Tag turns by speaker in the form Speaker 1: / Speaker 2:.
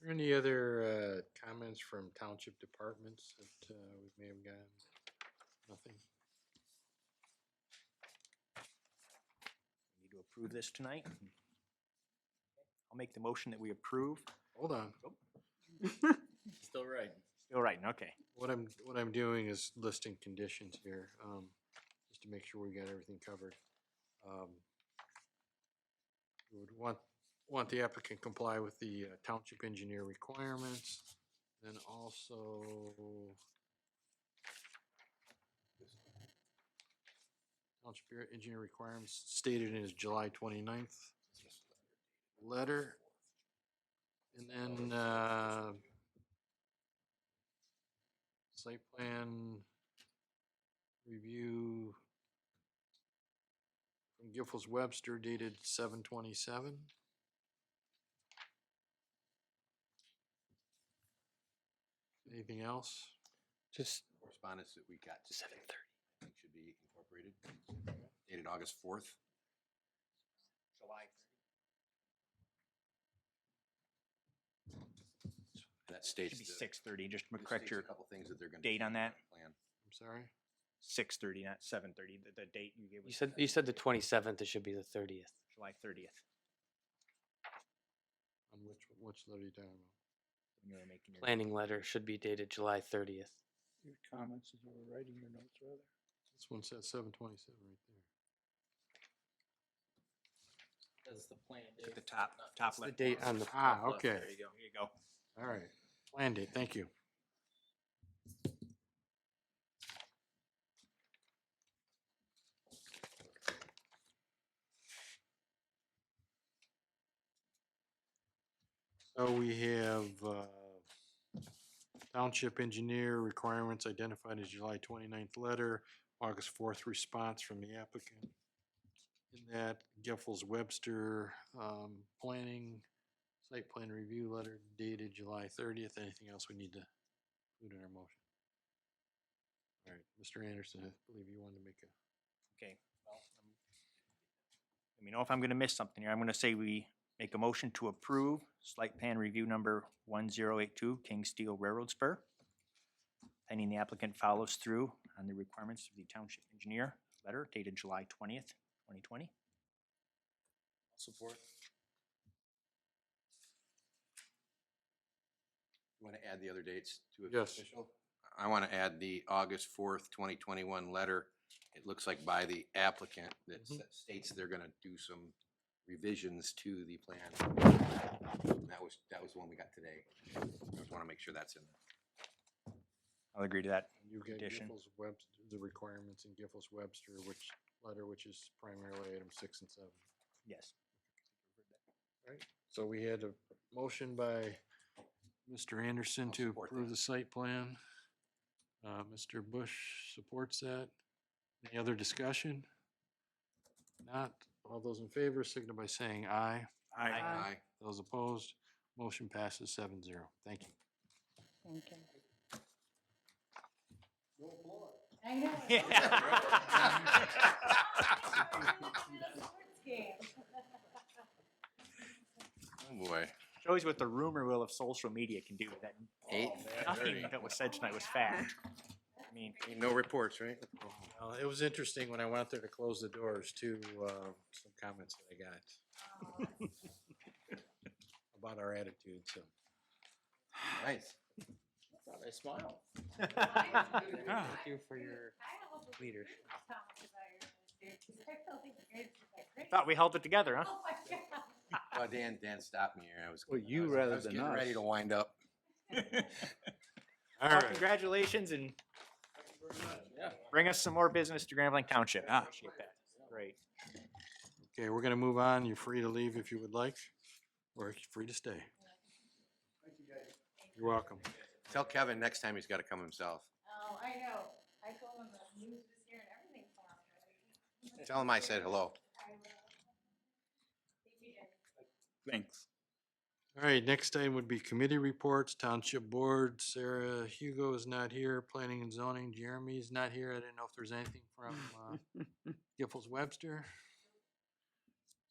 Speaker 1: there any other uh, comments from township departments that uh, we may have gotten? Nothing?
Speaker 2: We Need to approve this tonight? I'll make the motion that we approve.
Speaker 1: Hold on.
Speaker 3: Still right.
Speaker 2: All right, okay.
Speaker 1: What I'm, what I'm doing is listing conditions here, um, just to make sure we got everything covered. Um, we Would want, want the applicant comply with the uh, township engineer requirements, then also. Township engineer requirements stated in his July 29th letter. And then, uh, site plan review from Giffords Webster dated seven twenty-seven. Anything else?
Speaker 4: Just. Correspondence that we got. Seven thirty. Should be incorporated, dated August fourth. July. That states.
Speaker 2: Should be
Speaker 4: the-
Speaker 2: six thirty, just
Speaker 4: it
Speaker 2: correct
Speaker 4: states
Speaker 2: your
Speaker 4: A couple things that they're gonna.
Speaker 2: date
Speaker 4: change
Speaker 2: on that.
Speaker 4: the Plan.
Speaker 1: I'm sorry?
Speaker 2: six thirty, not seven thirty, the, the date you gave.
Speaker 3: You
Speaker 2: was
Speaker 3: said you said the twenty seventh. It should be the thirtieth.
Speaker 2: July thirtieth,
Speaker 1: On which, which letter you talking about?
Speaker 2: when you were making your.
Speaker 3: Planning letter should be dated July thirtieth.
Speaker 5: your comments as you were writing your notes rather.
Speaker 1: This one says seven twenty-seven right there.
Speaker 3: That's the plan.
Speaker 2: At the top, top
Speaker 3: The
Speaker 2: left.
Speaker 3: date on the
Speaker 1: Ah,
Speaker 3: top left.
Speaker 1: okay.
Speaker 2: There you go, here you go.
Speaker 1: All right, plan date, thank you. So we have uh, Township Engineer requirements identified as July 29th letter, August 4th response from the applicant. In that, Geffels Webster um, Planning Site plan review letter dated July thirtieth. Anything else we need to include in our motion? All right, Mr. Anderson, I believe you wanted to make a,
Speaker 2: Okay. well, um, Let me know if I'm gonna miss something here. I'm gonna say we make a motion to approve slight plan review number one zero eight two King Steel Railroad Spur. Pending the applicant follows through on the requirements of the township engineer letter dated July twentieth, twenty twenty.
Speaker 4: Support. You want to add the other dates to it?
Speaker 1: Yes.
Speaker 4: official? I want to add the August fourth, twenty twenty-one letter. It looks like by the applicant that
Speaker 5: Mm-hmm.
Speaker 1: Mhm.
Speaker 4: s- states they're going to do some revisions to the plan. That was, that was the one we got today. I just want to make sure that's in there.
Speaker 2: I'll agree to that.
Speaker 1: you get
Speaker 2: Condition.
Speaker 1: Giffords Webster, the requirements in Giffords Webster, which letter, which is primarily item six and seven.
Speaker 2: Yes.
Speaker 1: So we had a motion by Mr. Anderson
Speaker 4: I'll
Speaker 1: to
Speaker 4: support
Speaker 1: approve
Speaker 4: that.
Speaker 1: the site plan. Uh, Mr. Bush supports that. Any other discussion? Not, all those in favor, signal by saying aye.
Speaker 2: Aye.
Speaker 4: Aye.
Speaker 1: Those opposed, motion passes seven zero. Thank you.
Speaker 6: Thank you. I know.
Speaker 4: Oh, boy.
Speaker 2: Shows what the rumor will of social media can do, that
Speaker 4: Eight
Speaker 2: nothing
Speaker 4: thirty.
Speaker 2: that was said tonight was fact. I mean,
Speaker 4: No reports, right?
Speaker 1: Well, it was interesting when I went out there to close the doors too, uh, some comments that I got. About our attitude, so.
Speaker 4: Nice.
Speaker 3: I smile. Thank you for your. Leadership.
Speaker 2: thought we held it together, huh?
Speaker 6: Oh my
Speaker 4: Well, Oh, Dan, Dan stopped me here. I was.
Speaker 5: Well,
Speaker 4: I
Speaker 5: you
Speaker 4: was- I
Speaker 5: rather
Speaker 4: was
Speaker 5: than
Speaker 4: getting Ready
Speaker 5: us.
Speaker 4: to wind up.
Speaker 1: All
Speaker 2: Well,
Speaker 1: right,
Speaker 2: Congratulations and bring us some more business to Grand Blanc Township. Ah,
Speaker 5: Yeah.
Speaker 2: Appreciate that. Great.
Speaker 1: okay, we're gonna move on. You're free to leave if you would like, or you're free to stay. You're welcome.
Speaker 4: Tell Kevin next time he's got to come himself.
Speaker 6: Oh, I know. I told him the news was here and everything for him.
Speaker 4: Tell him I said hello.
Speaker 6: I will. Thank you, Jen.
Speaker 5: Thanks.
Speaker 1: All right, next item would be committee reports, township board. Sarah Hugo is not here, planning and zoning. Jeremy's not here. I didn't know if there's anything from, uh, Giffords Webster.